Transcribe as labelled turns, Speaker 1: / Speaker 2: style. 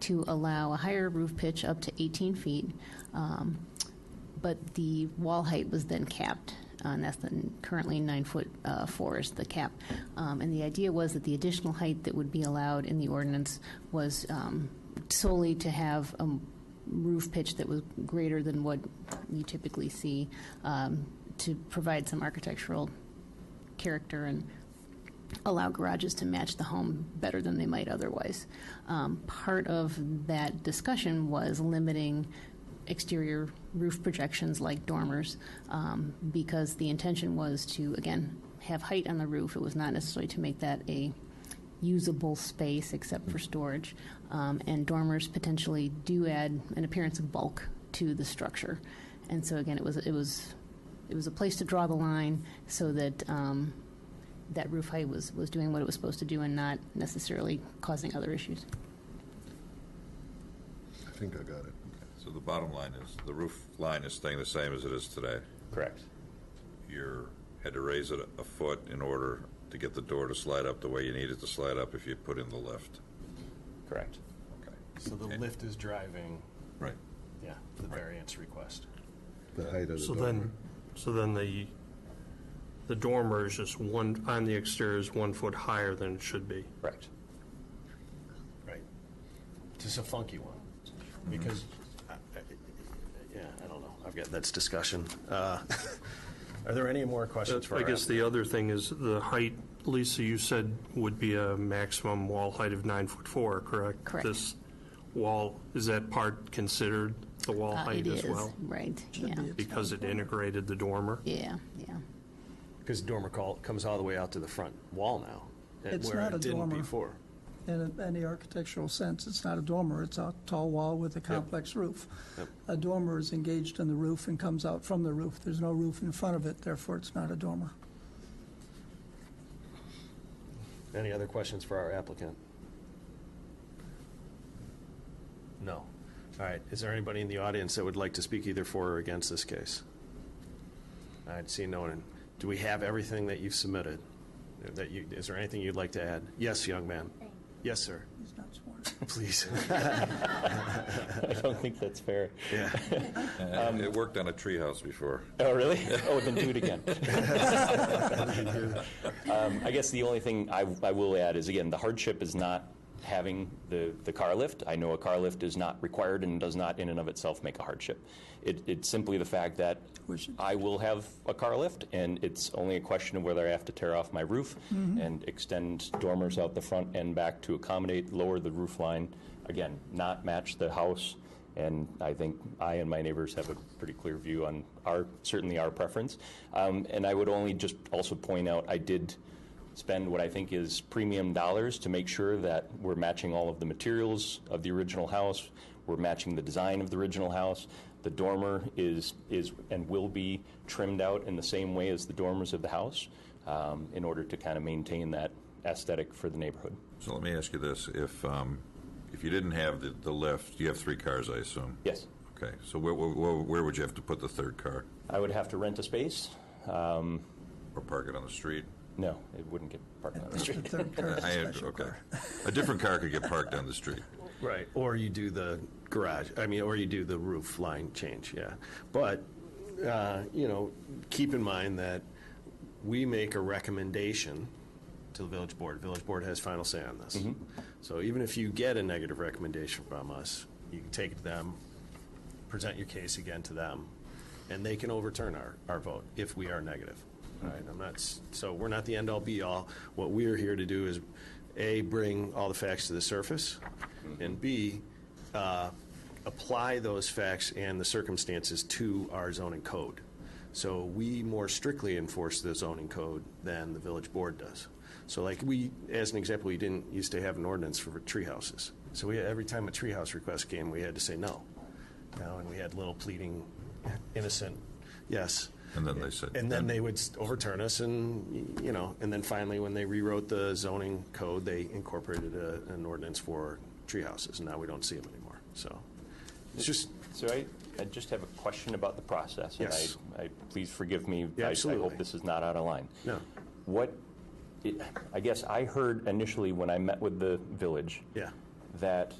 Speaker 1: to allow a higher roof pitch up to 18 feet, um, but the wall height was then capped, uh, and that's then currently nine foot uh, four is the cap. Um, And the idea was that the additional height that would be allowed in the ordinance was um, solely to have a roof pitch that was greater than what you typically see, um, to provide some architectural character and allow garages to match the home better than they might otherwise. Um, part of that discussion was limiting exterior roof projections like dormers um, because the intention was to, again, have height on the roof. It was not necessarily to make that a usable space except for storage. Um, and dormers potentially do add an appearance of bulk to the structure. And so again, it was it was it was a place to draw the line so that um, that roof height was, was doing what it was supposed to do and not necessarily causing other issues.
Speaker 2: I think I got it.
Speaker 3: So the bottom line is, the roof line is staying the same as it is today.
Speaker 4: Correct.
Speaker 3: You had to raise it a foot in order to get the door to slide up the way you need it to slide up if you put in the lift.
Speaker 4: Correct.
Speaker 3: Okay.
Speaker 5: So the lift is driving,
Speaker 3: Right.
Speaker 5: yeah, the variance request.
Speaker 2: The height of the
Speaker 6: So
Speaker 2: dormer.
Speaker 6: then, so then the, the dormer is just one, on the exterior is one foot higher than it should be.
Speaker 4: Correct.
Speaker 5: Right. Just a funky one, because, I- I- yeah, I don't know, I've got, that's discussion. Uh, Are there any more questions for
Speaker 6: Uh, I
Speaker 5: our
Speaker 6: guess the other thing is the height, Lisa, you said would be a maximum wall height of nine foot four, correct?
Speaker 1: Correct.
Speaker 6: This wall, is that part considered the wall
Speaker 1: Uh,
Speaker 6: height
Speaker 1: it
Speaker 6: as
Speaker 1: is,
Speaker 6: well?
Speaker 1: right, yeah,
Speaker 6: Because it integrated the dormer?
Speaker 1: yeah, yeah.
Speaker 5: Because dormer call comes all the way out to the front wall now. and
Speaker 7: It's
Speaker 5: where
Speaker 7: not
Speaker 5: it
Speaker 7: a
Speaker 5: didn't
Speaker 7: dormer.
Speaker 5: Before.
Speaker 7: in any architectural sense. It's not a dormer, it's a tall wall with a complex roof. A dormer is engaged in the roof and comes out from the roof. There's no roof in front of it, therefore it's not a dormer.
Speaker 5: Any other questions for our applicant? No. All right, is there anybody in the audience that would like to speak either for or against this case? All right, see no one. Do we have everything that you've submitted? That you, is there anything you'd like to add? Yes, young man. Yes, sir,
Speaker 7: He's not sworn.
Speaker 5: please.
Speaker 4: I don't think that's fair.
Speaker 5: Yeah.
Speaker 4: Um,
Speaker 3: And It worked on a treehouse before.
Speaker 4: Oh, really? Oh, then do it again. Um, I guess the only thing I, I will add is, again, the hardship is not having the, the car lift. I know a car lift is not required and does not in and of itself make a hardship. It, it's simply the fact that
Speaker 7: Wish it-
Speaker 4: I will have a car lift, and it's only a question of whether I have to tear off my roof and extend dormers out the front and back to accommodate, lower the roof line, again, not match the house. And I think I and my neighbors have a pretty clear view on our, certainly our preference. Um, and I would only just also point out, I did spend what I think is premium dollars to make sure that we're matching all of the materials of the original house, we're matching the design of the original house. The dormer is, is and will be trimmed out in the same way as the dormers of the house um, in order to kind of maintain that aesthetic for the neighborhood.
Speaker 3: So let me ask you this, if, um, if you didn't have the, the lift, you have three cars, I assume?
Speaker 4: Yes,
Speaker 3: Okay, so where, where, where would you have to put the third car?
Speaker 4: I would have to rent a space. Um,
Speaker 3: Or park it on the street?
Speaker 4: no, it wouldn't get parked on the
Speaker 7: It's
Speaker 4: street.
Speaker 7: the third car, it's a
Speaker 3: I-
Speaker 7: special
Speaker 3: okay.
Speaker 7: car.
Speaker 3: A different car could get parked on the street.
Speaker 5: Right, or you do the garage, I mean, or you do the roof line change, yeah. But, uh, you know, keep in mind that we make a recommendation to the village board. Village board has final say on this. So even if you get a negative recommendation from us, you can take it to them, present your case again to them, and they can overturn our, our vote if we are negative. All right, I'm not, s- so we're not the end all be all. What we are here to do is, A, bring all the facts to the surface, and B, uh, apply those facts and the circumstances to our zoning code. So we more strictly enforce the zoning code than the village board does. So like we, as an example, we didn't used to have an ordinance for tree houses. So we, every time a tree house request came, we had to say no. Now, and we had little pleading, innocent, yes.
Speaker 3: And then they said-
Speaker 5: And then they would s- overturn us and, y- you know, and then finally, when they rewrote the zoning code, they incorporated a, an ordinance for tree houses. And now we don't see them anymore, so. It's just,
Speaker 4: So I, I just have a question about the process. and
Speaker 5: Yes.
Speaker 4: I, I, please forgive me.
Speaker 5: Yeah,
Speaker 4: I- I
Speaker 5: absolutely.
Speaker 4: hope this is not out of line.
Speaker 5: No.
Speaker 4: What, it- I guess I heard initially when I met with the village.
Speaker 5: yeah,
Speaker 4: that